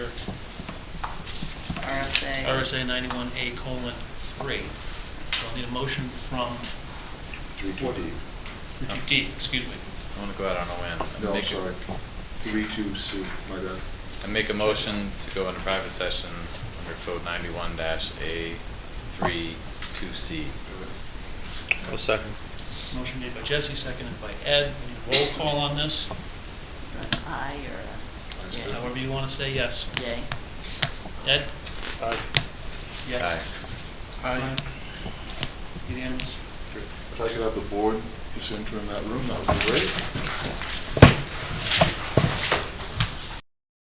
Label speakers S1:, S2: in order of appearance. S1: RSA.
S2: RSA 91A colon 3. So I'll need a motion from,
S3: Three, two, D.
S2: uh, D, excuse me.
S4: I want to go out on a whim. I
S3: No, I'm
S4: make a-
S3: sorry. Three, two, C, my bad.
S4: I make a motion to go into private session under code ninety-one dash A three two C.
S5: I'll second.
S2: Motion made by Jesse, seconded by Ed. We need a roll call on this,
S1: Or an I or a
S3: Yay.
S2: however you want to say yes.
S1: yay, yay.
S2: Ed?
S5: Aye.
S2: Yes.
S5: Aye.
S2: Unanimous?
S3: If I could have the board just enter in that room, that would be great.